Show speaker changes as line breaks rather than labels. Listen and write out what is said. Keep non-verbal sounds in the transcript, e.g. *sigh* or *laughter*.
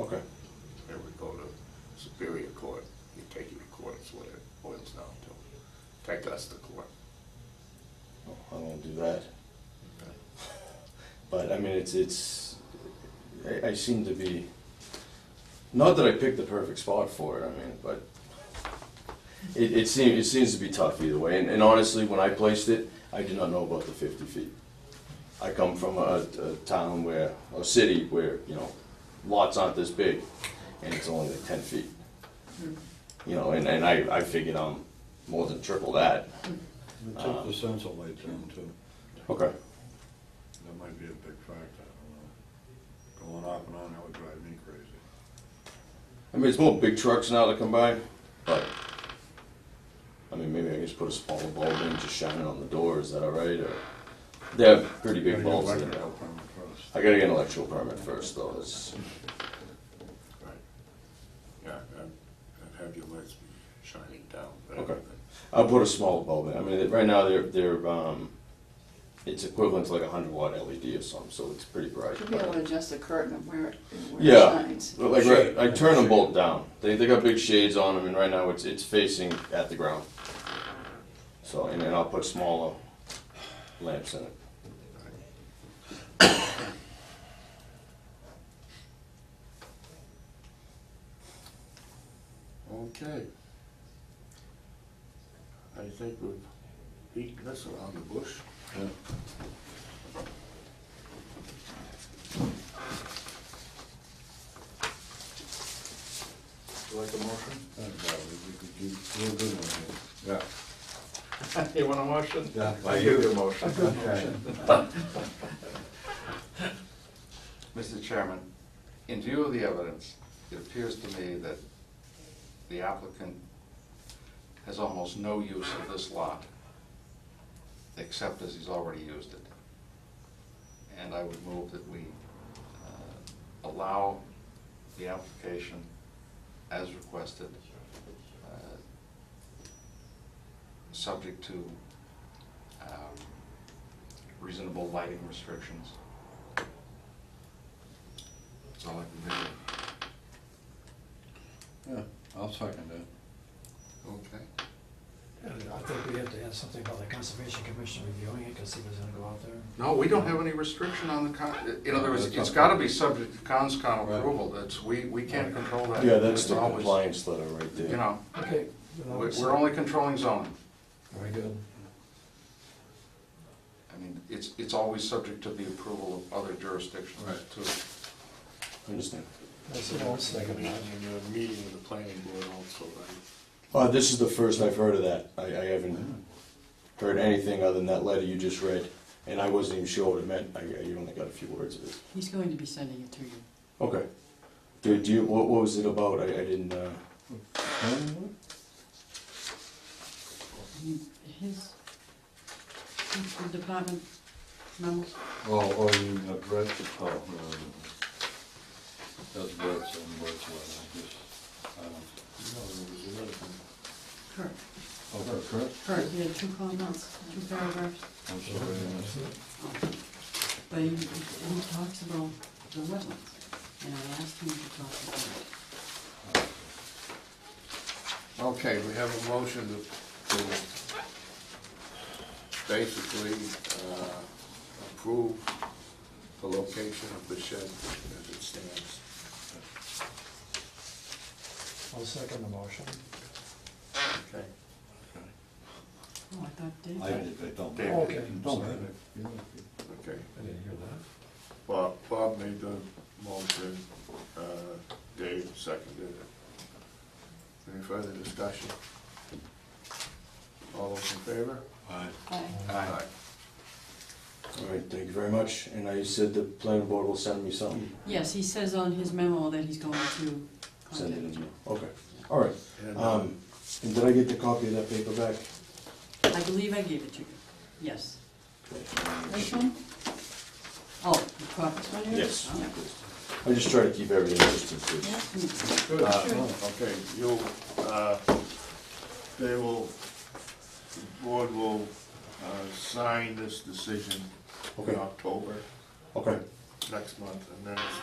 Okay,
It would go to Superior Court, you take it to court, it's what it boils down to. Take us to court.
Well, I don't wanna do that. But I mean, it's, it's, I, I seem to be, not that I picked the perfect spot for it, I mean, but it, it seems, it seems to be tough either way, and, and honestly, when I placed it, I did not know about the fifty feet. I come from a, a town where, a city where, you know, lots aren't this big, and it's only like ten feet. You know, and, and I, I figured I'm more than triple that.
It took the sense of light down too.
Okay.
That might be a big factor, I don't know. Going off and on, that would drive me crazy.
I mean, it's more big trucks now that come by, but, I mean, maybe I can just put a smaller bulb in, just shine it on the door, is that all right, or? They have pretty big
Gotta get
bulbs in
electrical
there.
permit first.
I gotta get an electrical permit first, though, it's,
Right. Yeah, and, and have your lights be shining down. but
Okay.
everything.
I'll put a smaller bulb in, I mean, right now, they're, they're, um, it's equivalent to like a hundred watt LED or something, so it's pretty bright.
You'll be able to
but-
adjust the curtain of where it, where it
Yeah,
shines.
but like, right- I turn them both down, they, they got big shades on them, and right now, it's, it's facing at the ground. So, and then I'll put smaller lamps in it.
Okay. I think we've beaten this around the bush.
You like the motion? we could do, we'll do one
Yeah.
You want a motion?
Yeah.
I give you a motion.
*laughs* here.
Mr. Chairman, in view of the evidence, it appears to me that the applicant has almost no use of this lot, except as he's already used it. And I would move that we uh, allow the application as requested, uh, subject to um, reasonable lighting restrictions. That's all I can do.
Yeah, I'll second it.
Okay.
And I think we have to add something about the conservation commission reviewing it, because he was gonna go out there.
No, we don't have any restriction on the, con in other words, it's gotta be subject to conscom approval, that's, we, we can't control that.
Yeah, that's
It's
the
always-
compliance letter right there.
You know,
Okay.
we're, we're only controlling zoning,
Very good.
I mean, it's, it's always subject to the approval of other jurisdictions
Right.
too.
Understand.
That's the whole
And
second.
you're meeting with the planning board also, right?
Uh, this is the first I've heard of that. I, I haven't heard anything other than that letter you just read, and I wasn't even sure what it meant. I, I only got a few words of it.
He's going to be sending it to you.
Okay. Do, do you, what, what was it about? I, I didn't, uh,
He- His, his department memos.
Oh, oh, you mean that Brett, oh, no, no, no. That's Brett's and Brett's letter, I guess. I don't-
No, there was another thing.
Kurt,
Oh, for Kurt?
Kurt, he had two comments, two paragraphs.
I'm sorry, I missed that.
But he, he talks about the wetlands, and I asked him to talk about it.
Okay, we have a motion to, to basically, uh, approve the location of the shed as it stands.
I'll second the motion.
Okay.
Oh, I thought Dave.
I, I don't.
David.
Okay.
Don't.
Sorry.
Yeah.
Okay,
I didn't hear that.
Bob, Bob made the motion, uh, Dave seconded it. Any further discussion? All those in favor?
Aye.
Aye.
Aye.
all right, thank you very much. And I said the planning board will send me something.
Yes, he says on his memo that he's going to
Send it in.
contact you.
mail. Okay, all right.
And, uh,
Um, and did I get the copy of that paper back?
I believe I gave it to you, yes. This one? Oh, the caucus one here?
Yes.
Oh.
I just try to keep everything just in
Yeah,
case.
hmm.
Good,
uh,
okay, you'll, uh, they will, the board will, uh, sign this decision in
Okay.
October,
Okay.
next month, and then it's